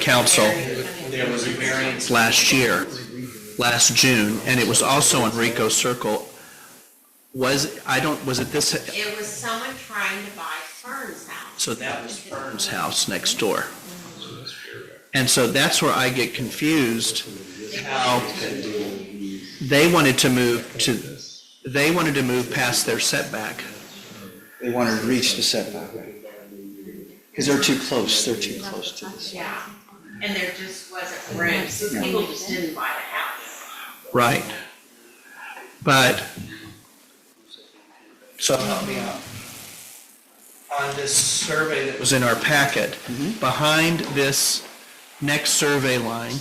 council last year, last June, and it was also on Rico Circle. Was, I don't, was it this, It was someone trying to buy Fern's house. so that was Fern's house next door. And so that's where I get confused. How They wanted to move to, they wanted to move past their setback. They wanted to reach the setback. Because they're too close, they're too close to this. Yeah, and there just wasn't room, so people just didn't buy the house. Right. But, so help me out. On this survey that was in our packet, behind this next survey line,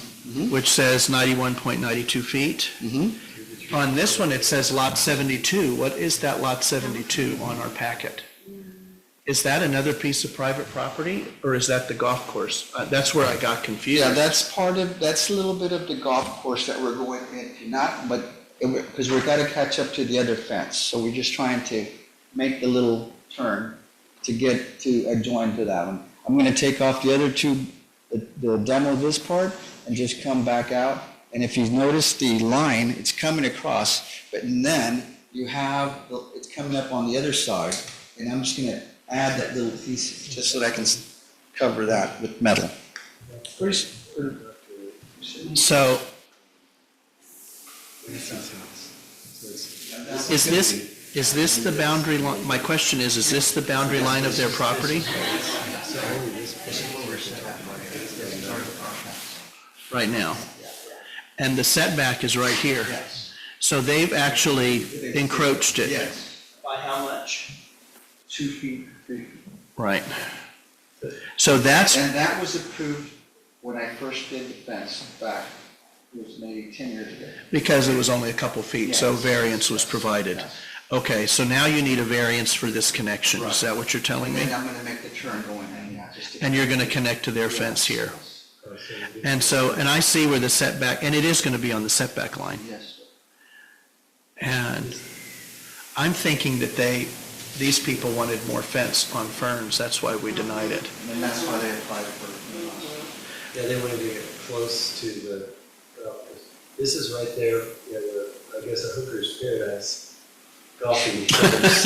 which says 91.92 feet, on this one, it says lot 72. What is that lot 72 on our packet? Is that another piece of private property, or is that the golf course? Uh, That's where I got confused. Yeah, that's part of, that's a little bit of the golf course that we're going into, not, but, because we've got to catch up to the other fence. So we're just trying to make the little turn to get to adjoin to that one. I'm going to take off the other two, the- the demo of this part, and just come back out. And if you've noticed the line, it's coming across, but then you have, the- it's coming up on the other side. And I'm just going to add that little piece, just so that I can s- cover that with metal. So. Is this, is this the boundary line, my question is, is this the boundary line of their property? Right now. And the setback is right here. So they've actually encroached it. By how much? Two feet, three feet. Right. So that's, And that was approved when I first did the fence back, it was maybe ten years ago. because it was only a couple feet, so Yes. variance was provided. Yes. Okay, so now you need a variance for this connection, is that what you're telling And me? then I'm gonna make the turn going in, yeah, just to. and you're going to connect to their fence here. And so, and I see where the setback, and it is going to be on the setback line. Yes. And I'm thinking that they, these people wanted more fence on Ferns, that's why we denied it. And then that's why they applied for Yeah, they wanted to get close to the, golf course. this is right there, you know, the, I guess a hooker's paradise, golfing. course.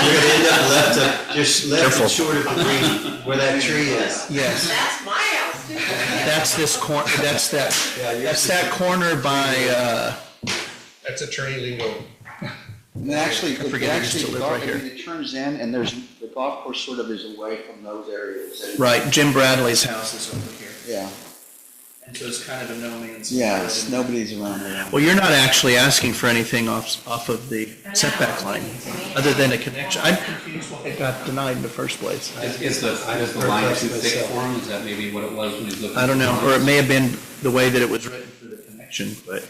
You're gonna end up left of, just left Careful. and short of the green, where that tree is. Yes, That's my house too. that's this cor, that's that, Yeah, you're. that's that corner by, uh, That's a it. trilingual. And then actually, I it forget it used to actually, live golf- right I here. mean, it turns in and there's, the golf course sort of is away from those areas. and- right, Jim Bradley's house is over here. Yeah, And so it's kind of a no man's. yeah, it's, nobody's around there. Well, you're not actually asking for anything off, off of the setback line, other than a connection. I'm confused why it got denied in the first place. Is, is the, is the line too thick for him? Is that maybe what it was when he was looking? I don't know, for or it? it may have been the way that it was written for the connection, but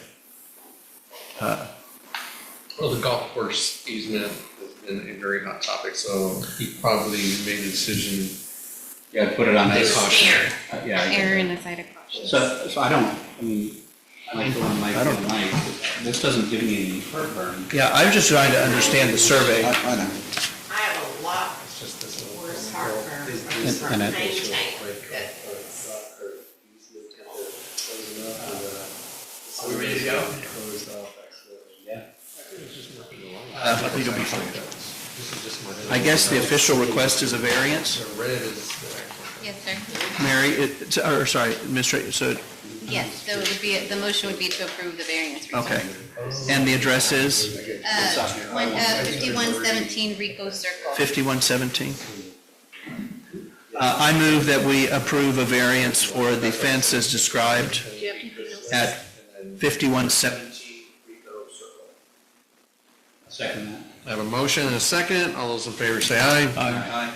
Well, the golf course easement has been a very hot topic, so he probably made a decision. Yeah, put it on They this. caution. Uh, Yeah. I get Error that. in the side of caution. So, so I don't, I mean, I like the one Mike, I don't- and Mike, but this doesn't give me any heartburn. yeah, I'm just trying to understand the I, survey. I know. I have a lot worse heartburn from And- and it- maintaining that Are we ready to go? Yeah. I think it'll be fine. Uh, I guess the official request is a variance. Red is the Yes, sir. Mary, it, or, sorry, Mr., so, Yes, so it would be, the motion would be to approve the variance. request. okay. And the address is Uh, one, uh, fifty-one seventeen Rico Circle. 5117? Uh, I move that we approve a variance for the fence as described at 5117. Second that. I have a motion and a second. All those in favor say aye.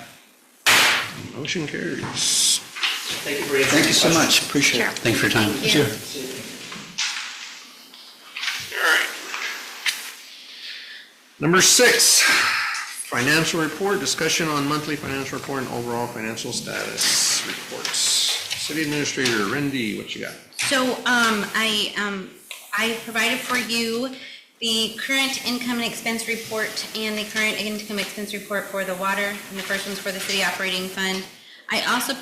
Motion carries. Thank you so much, appreciate it. Thanks for your time. Sure. Number six, financial report, discussion on monthly financial report and overall financial status reports. City Administrator Rendy, what you got? So, um, I, um, I provided for you the current income and expense report and the current income expense report for the water, and the first one's for the city operating fund. I also